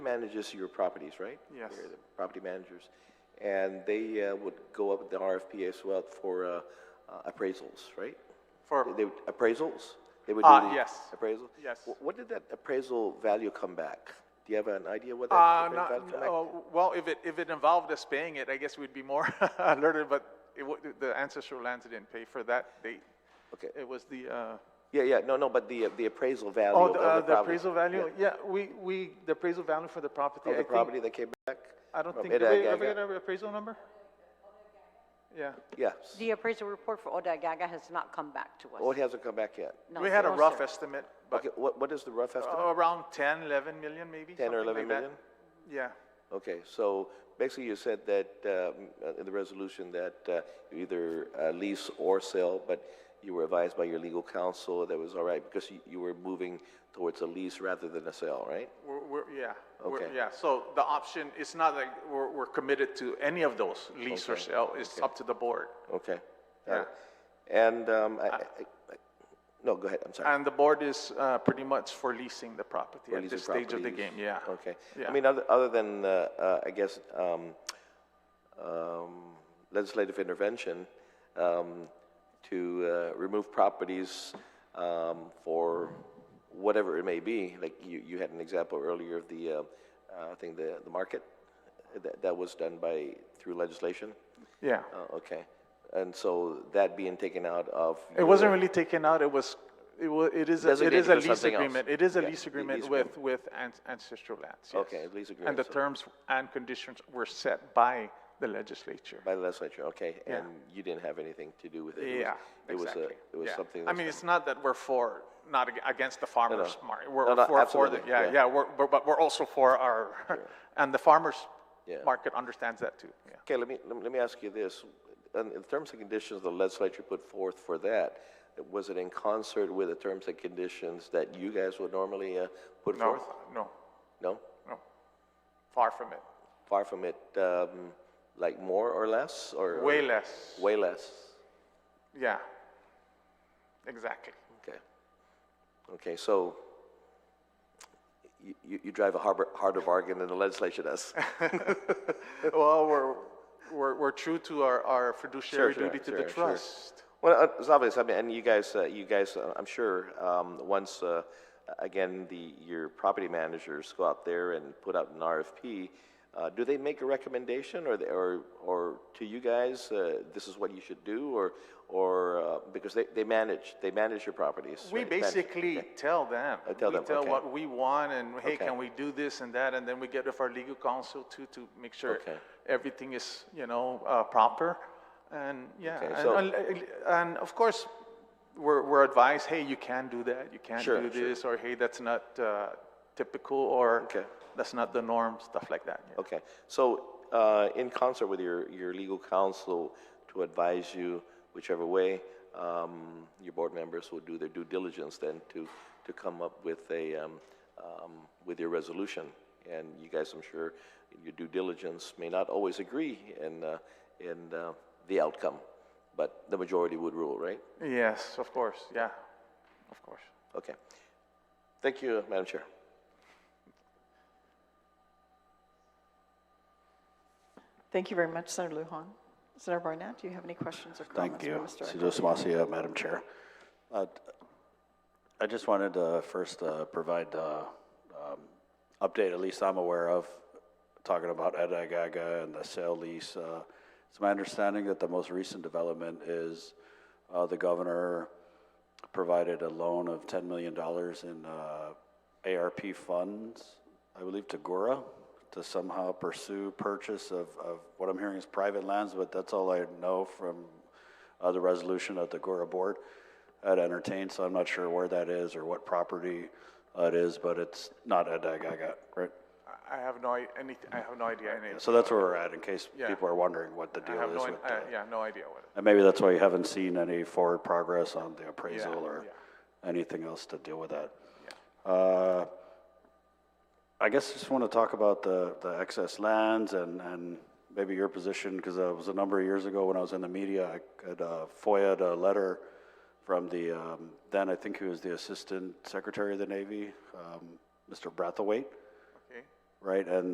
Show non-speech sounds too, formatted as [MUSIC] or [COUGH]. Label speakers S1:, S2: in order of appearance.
S1: manages your properties, right?
S2: Yes.
S1: They're the Property managers. And they uh, would go up with the RFP as well for uh, uh, appraisals, right? They-
S2: For,
S1: They, would- appraisals? They would do
S2: Ah,
S1: the
S2: yes.
S1: Appraisal?
S2: Yes.
S1: Wh- What did that appraisal value come back? Do you have an idea what that?
S2: uh,
S1: appraisal
S2: not,
S1: value come back?
S2: no, well, if it, if it involved us paying it, I guess we'd be more [LAUGHS] alerted, but it, wa- the ancestral lands didn't pay for that. They,
S1: Okay.
S2: it was the, uh,
S1: Yeah, yeah, no, no, but the, uh, the appraisal value
S2: oh,
S1: of
S2: the,
S1: the
S2: uh,
S1: property.
S2: the appraisal value?
S1: Yeah,
S2: Yeah, we, we, the appraisal value for the property, I
S1: Of the
S2: think.
S1: property that came back?
S2: I don't
S1: from
S2: think, did they
S1: Edagaga.
S2: ever get an appraisal number? Yeah.
S1: Yes.
S3: The appraisal report for Odagaga has not come back to
S1: Oh,
S3: us.
S1: it hasn't come back yet?
S3: No,
S2: We had a
S3: no,
S2: rough
S3: sir.
S2: estimate, but Uh,
S1: Okay, what, what is the rough estimate?
S2: around 10, 11 million maybe?
S1: 10 or
S2: something like
S1: 11
S2: that.
S1: million?
S2: Yeah.
S1: Okay, so basically you said that um, uh, in the resolution that uh, you either uh, lease or sell, but you were advised by your legal counsel that was all right because you- you were moving towards a lease rather than a sale, right?
S2: We're, we're, yeah. we're-
S1: Okay.
S2: Yeah, so the option, it's not like we're, we're committed to any of those, lease or sale, it's up to the board.
S1: Okay. got it. And, um, I, I, I- no, go ahead, I'm sorry.
S2: And the board is, uh, pretty much for leasing the property
S1: Or
S2: at
S1: leasing
S2: this stage of the
S1: properties.
S2: game, yeah.
S1: Okay. I
S2: Yeah.
S1: mean, other, other than, uh, uh, I guess, um, um, legislative intervention, um, to, uh, remove properties, um, for whatever it may be, like you, you had an example earlier of the, uh, uh, I think the, the market, that, that was done by, through legislation?
S2: Yeah.
S1: Uh, okay. And so that being taken out of.
S2: It wasn't really taken out, it was, it wa, it is, a- it
S1: Designated
S2: is a
S1: for
S2: lease
S1: something else.
S2: agreement, it is a
S1: Yeah,
S2: lease
S1: le-
S2: agreement
S1: lease
S2: with, with an- ancestral lands, yes.
S1: Okay, lease
S2: And the
S1: agreement, so-
S2: terms and conditions were set by the legislature.
S1: By the legislature, okay,
S2: Yeah.
S1: and you didn't have anything to do with it? It was-
S2: Yeah,
S1: It was a,
S2: exactly.
S1: it was
S2: Yeah.
S1: something.
S2: I
S1: that's
S2: mean,
S1: not-
S2: it's not that we're for, not ag- against the farmers market.
S1: No, no,
S2: We're for, for the,
S1: absolutely,
S2: yeah,
S1: yeah.
S2: yeah, we're, but- but we're also for our, and the farmers
S1: Yeah.
S2: market understands that too, yeah.
S1: Okay, let me, let me- let me ask you this. In in terms and conditions the legislature put forth for that, was it in concert with the terms and conditions that you guys would normally uh, put
S2: No,
S1: forth?
S2: no,
S1: No?
S2: no, far from it,
S1: Far from it, um, like more or less, or? or-
S2: way less,
S1: Way less?
S2: yeah.
S1: [LAUGHS]
S2: Exactly.
S1: Okay. Okay, so you- you, you drive a harbor- harder bargain than the legislature does.
S2: Well, we're, we're, we're true to our, our fiduciary
S1: sure,
S2: duty to the
S1: sure, sure.
S2: trust.
S1: Well, uh, it's obvious. I mean, and you guys, uh, you guys, uh, I'm sure, um, once uh, again the your property managers go out there and put out an RFP, uh, do they make a recommendation, or they, or or to you guys, uh, this is what you should do, or or uh, because they, they manage they manage your properties.
S2: We
S1: right? Manage-
S2: basically tell them.
S1: tell
S2: We
S1: them,
S2: tell
S1: okay.
S2: what we want and, hey,
S1: Okay.
S2: can we do this and that? And then we get with our legal counsel too, to make sure
S1: Okay.
S2: everything is, you know, uh, proper. And, yeah,
S1: Okay,
S2: and-
S1: so-
S2: and, and of course, we're, we're advised, hey, you can do that, you can
S1: Sure,
S2: do
S1: sure.
S2: this, or hey, that's not uh, typical, or
S1: Okay.
S2: that's not the norm, stuff like that. yeah.
S1: Okay, so uh, in concert with your, your legal counsel to advise you whichever way, um, your board members will do their due diligence then to, to come up with a, um, um, with your resolution. And you guys, I'm sure, in your due diligence may not always agree in, uh, in uh, the outcome, but the majority would rule, right?
S2: Yes, of course, yeah, of course.
S1: Okay. Thank you, Madam Chair.
S4: Thank you very much, Senator Lujan. Senator Barnett, do you have any questions or
S5: Thank
S4: comments for
S5: you.
S4: Mr. Eckert?
S5: Cito Samasia, Madam Chair. Uh, I just wanted to first uh, provide the update, at least I'm aware of, talking about Edagaga and the sale lease. uh, It's my understanding that the most recent development is uh, the governor provided a loan of $10 million in uh, ARP funds, I believe to Gora, to somehow pursue purchase of, of what I'm hearing is private lands, but that's all I know from uh, the resolution of the Gora board had entertained, so I'm not sure where that is or what property uh, it is, but it's not at Dagaga, right?
S2: I- I have no, i- any, I have no idea. any-
S5: So that's where we're at, in case
S2: Yeah.
S5: people are wondering what the
S2: I
S5: deal
S2: have
S5: is
S2: no,
S5: with
S2: i- I-
S5: the...
S1: uh,
S2: yeah, no idea what it
S5: And maybe that's why you haven't seen any forward progress on the appraisal or anything else to deal with that. Uh, I guess just want to talk about the, the excess lands and, and maybe your position, because it was a number of years ago when I was in the media, I had uh, FOIA'd a letter from the, um, then I think he was the Assistant Secretary of the Navy, um, Mr. Brathwaite,
S2: Okay.
S5: right? And